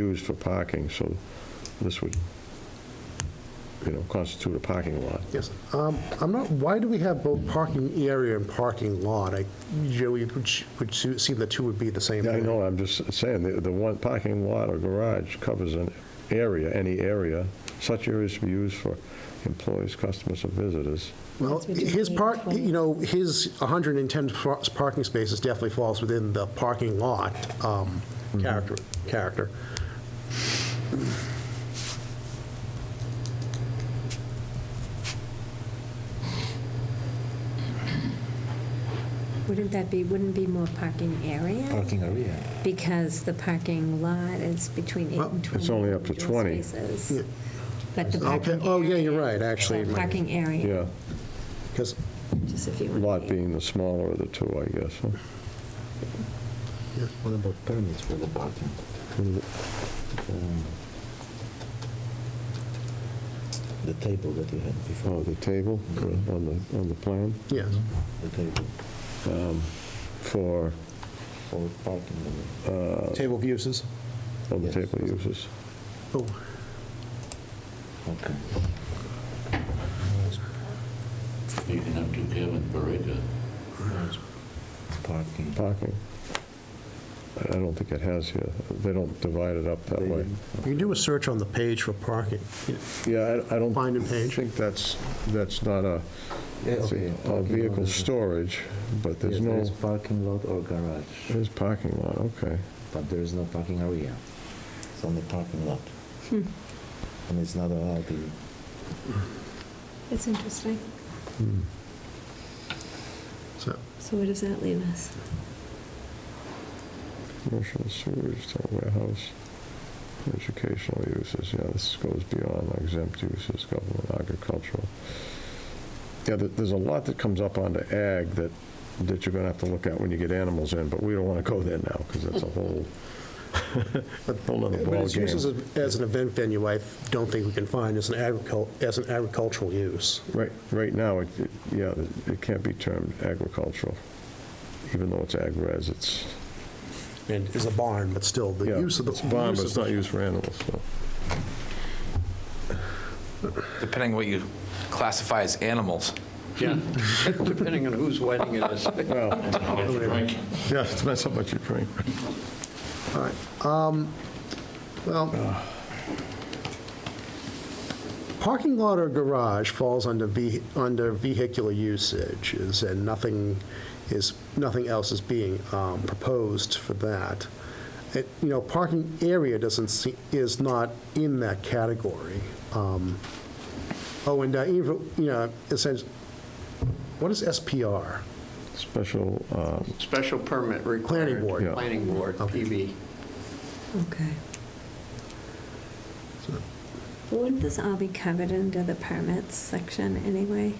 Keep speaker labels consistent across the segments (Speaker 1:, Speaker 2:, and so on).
Speaker 1: used for parking, so this would, you know, constitute a parking lot.
Speaker 2: Yes. Um, I'm not, why do we have both parking area and parking lot? I, Joey, it would sh- would su- seem the two would be the same
Speaker 1: Yeah, I
Speaker 2: thing.
Speaker 1: know, I'm just saying, the, the one parking lot or garage covers an area, any area. Such areas to be used for employees, customers, or visitors.
Speaker 2: Well,
Speaker 3: That's what you
Speaker 2: his
Speaker 3: need,
Speaker 2: park,
Speaker 3: right.
Speaker 2: you know, his 110 fa- parking spaces definitely falls within the parking lot um,
Speaker 1: Mm-hmm.
Speaker 2: character, character.
Speaker 3: Wouldn't that be, wouldn't be more parking area?
Speaker 4: Parking area.
Speaker 3: Because the parking lot is between 8
Speaker 2: Well,
Speaker 3: and 20.
Speaker 1: it's only up to
Speaker 3: individual
Speaker 1: 20.
Speaker 3: spaces. But the
Speaker 2: Okay,
Speaker 3: parking.
Speaker 2: oh, yeah, you're
Speaker 3: area-
Speaker 2: right, actually.
Speaker 3: Parking area,
Speaker 1: Yeah,
Speaker 2: Because,
Speaker 3: just if you want.
Speaker 1: lot being the smaller of the two, I guess. huh?
Speaker 4: What about permits for the parking? Um, The table that you had
Speaker 1: Oh,
Speaker 4: before,
Speaker 1: the table on the, on the plan
Speaker 2: yes,
Speaker 4: the table
Speaker 1: for,
Speaker 4: for parking. area.
Speaker 1: Uh,
Speaker 2: table of uses.
Speaker 1: on the
Speaker 4: Yes.
Speaker 1: table uses.
Speaker 2: Oh,
Speaker 4: Okay.
Speaker 5: Speaking up to Kevin Barica,
Speaker 4: Parking.
Speaker 1: Parking. I- I don't think it has here. They don't divide it up that
Speaker 4: They
Speaker 1: way.
Speaker 4: didn't.
Speaker 2: You can do a search on the page for parking.
Speaker 1: Yeah, I I don't.
Speaker 2: Find and page.
Speaker 1: think that's, that's not a,
Speaker 4: Yeah,
Speaker 1: it's
Speaker 4: okay,
Speaker 1: a- a
Speaker 4: parking lot
Speaker 1: vehicle
Speaker 4: is-
Speaker 1: storage, but
Speaker 4: Yes,
Speaker 1: there's
Speaker 4: there
Speaker 1: no,
Speaker 4: is parking lot or garage,
Speaker 1: there's parking lot, okay.
Speaker 4: but there is no parking area. It's only parking lot.
Speaker 3: Hmm.
Speaker 4: And it's not allowed in,
Speaker 3: It's interesting.
Speaker 2: So,
Speaker 3: So where does that leave us?
Speaker 1: Commercial sewage, town warehouse, educational uses, yeah, this goes beyond exempt uses, government agricultural. Yeah, there- there's a lot that comes up onto ag that, that you're going to have to look at when you get animals in, but we don't want to go there now, because that's a whole, whole nother
Speaker 2: But its uses
Speaker 1: ballgame.
Speaker 2: as- as an event venue, I don't think we can find as an agricul, as an agricultural use.
Speaker 1: Right, right now, it, it- yeah, it can't be termed agricultural, even though it's ag-res, it's,
Speaker 2: And it's a barn, but still, the
Speaker 1: yeah,
Speaker 2: use
Speaker 1: it's
Speaker 2: of the.
Speaker 1: barn, but
Speaker 2: use of
Speaker 1: it's
Speaker 2: the-
Speaker 1: not used for animals, so.
Speaker 6: depending what you classify as animals.
Speaker 7: Yeah, depending on whose wedding it is.
Speaker 5: Frank,
Speaker 1: Yeah, it depends how much you drink.
Speaker 2: All right, um, well, parking lot or garage falls under ve, under vehicular usages, and nothing is, nothing else is being um, proposed for that. It, you know, parking area doesn't see, is not in that category. Um, Oh, and, uh, even, you know, essentially, what is SPR?
Speaker 1: Special, uh,
Speaker 7: Special permit required.
Speaker 2: Planning board.
Speaker 1: Yeah.
Speaker 7: Planning board, PB.
Speaker 3: Okay. Wouldn't this all be covered under the permits section anyway?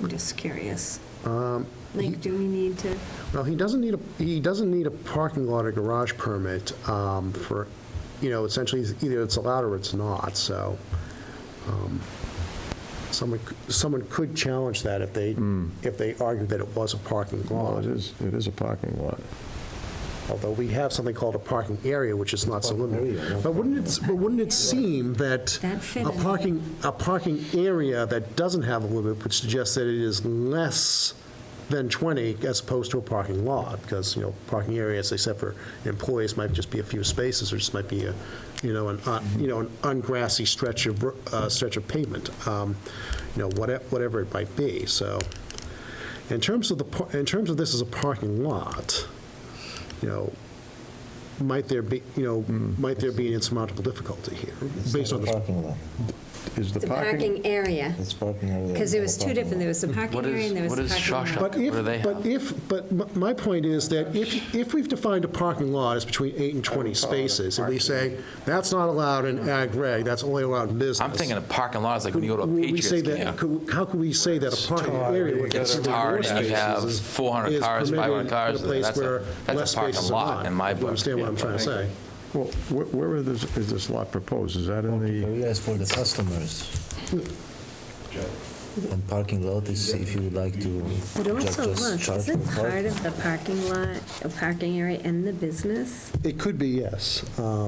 Speaker 3: I'm just curious.
Speaker 2: Um,
Speaker 3: Like, do we need to?
Speaker 2: Well, he doesn't need a, he doesn't need a parking lot or garage permit um, for, you know, essentially, it's either it's allowed or it's not, so um, someone, c- someone could challenge that if they, if they argued that it was a parking
Speaker 1: well,
Speaker 2: lot,
Speaker 1: it is, it is a parking lot.
Speaker 2: although we have something called a parking area, which is not so
Speaker 4: Parking
Speaker 2: limited.
Speaker 4: area, no
Speaker 2: But wouldn't it, but wouldn't it seem that
Speaker 3: That fit
Speaker 2: a
Speaker 3: in.
Speaker 2: parking, a parking area that doesn't have a limit would suggest that it is less than 20 as opposed to a parking lot, because, you know, parking areas, except for employees, might just be a few spaces, or just might be a, you know, an, un- you know, an ungrassy stretch of, ro- uh, stretch of pavement, um, you know, whate- whatever it might be, so. In terms of the, par- in terms of this as a parking lot, you know, might there be, you know, might there be an insurmountable difficulty here,
Speaker 4: it's
Speaker 2: based on
Speaker 4: not a
Speaker 2: the
Speaker 4: parking lot.
Speaker 1: Is the
Speaker 3: The
Speaker 1: parking,
Speaker 3: parking area,
Speaker 4: It's parking area.
Speaker 3: because
Speaker 4: not
Speaker 3: there
Speaker 4: a
Speaker 3: was two
Speaker 4: parking
Speaker 3: different,
Speaker 4: lot.
Speaker 3: there was the parking
Speaker 6: What
Speaker 3: area
Speaker 6: is-
Speaker 3: and there was
Speaker 6: what
Speaker 3: the
Speaker 6: is
Speaker 3: parking
Speaker 6: Shawshank?
Speaker 3: lot.
Speaker 2: But
Speaker 6: What do
Speaker 2: if,
Speaker 6: they
Speaker 2: but
Speaker 6: have?
Speaker 2: if, but m- my point is that if, if we've defined a parking lot as between eight and 20 spaces, and we say, that's not allowed in ag reg, that's only allowed in business.
Speaker 6: I'm thinking of parking lots, like when you go to a
Speaker 2: We- we say that-
Speaker 6: Patriots game.
Speaker 2: could- How could we say that a parking area with
Speaker 6: It's
Speaker 2: considerably
Speaker 6: tarred
Speaker 2: more
Speaker 6: and you have
Speaker 2: spaces is-
Speaker 6: 400
Speaker 2: is
Speaker 6: cars,
Speaker 2: permitted
Speaker 6: 500 cars,
Speaker 2: in a place
Speaker 6: that's a-
Speaker 2: where
Speaker 6: that's a
Speaker 2: less
Speaker 6: parking
Speaker 2: spaces are
Speaker 6: lot
Speaker 2: not.
Speaker 6: in my
Speaker 2: If You
Speaker 6: book.
Speaker 2: understand what I'm trying to say?
Speaker 1: well, where- where is this,
Speaker 4: Oh,
Speaker 1: is this lot proposed? Is that in the,
Speaker 4: Areas for the customers. And parking lot is if you would like to
Speaker 3: But
Speaker 4: ju-
Speaker 3: also,
Speaker 4: just
Speaker 3: look,
Speaker 4: charge for
Speaker 3: isn't part
Speaker 4: parking.
Speaker 3: of the parking lot, a parking area in the business?
Speaker 2: It could be, yes. Um,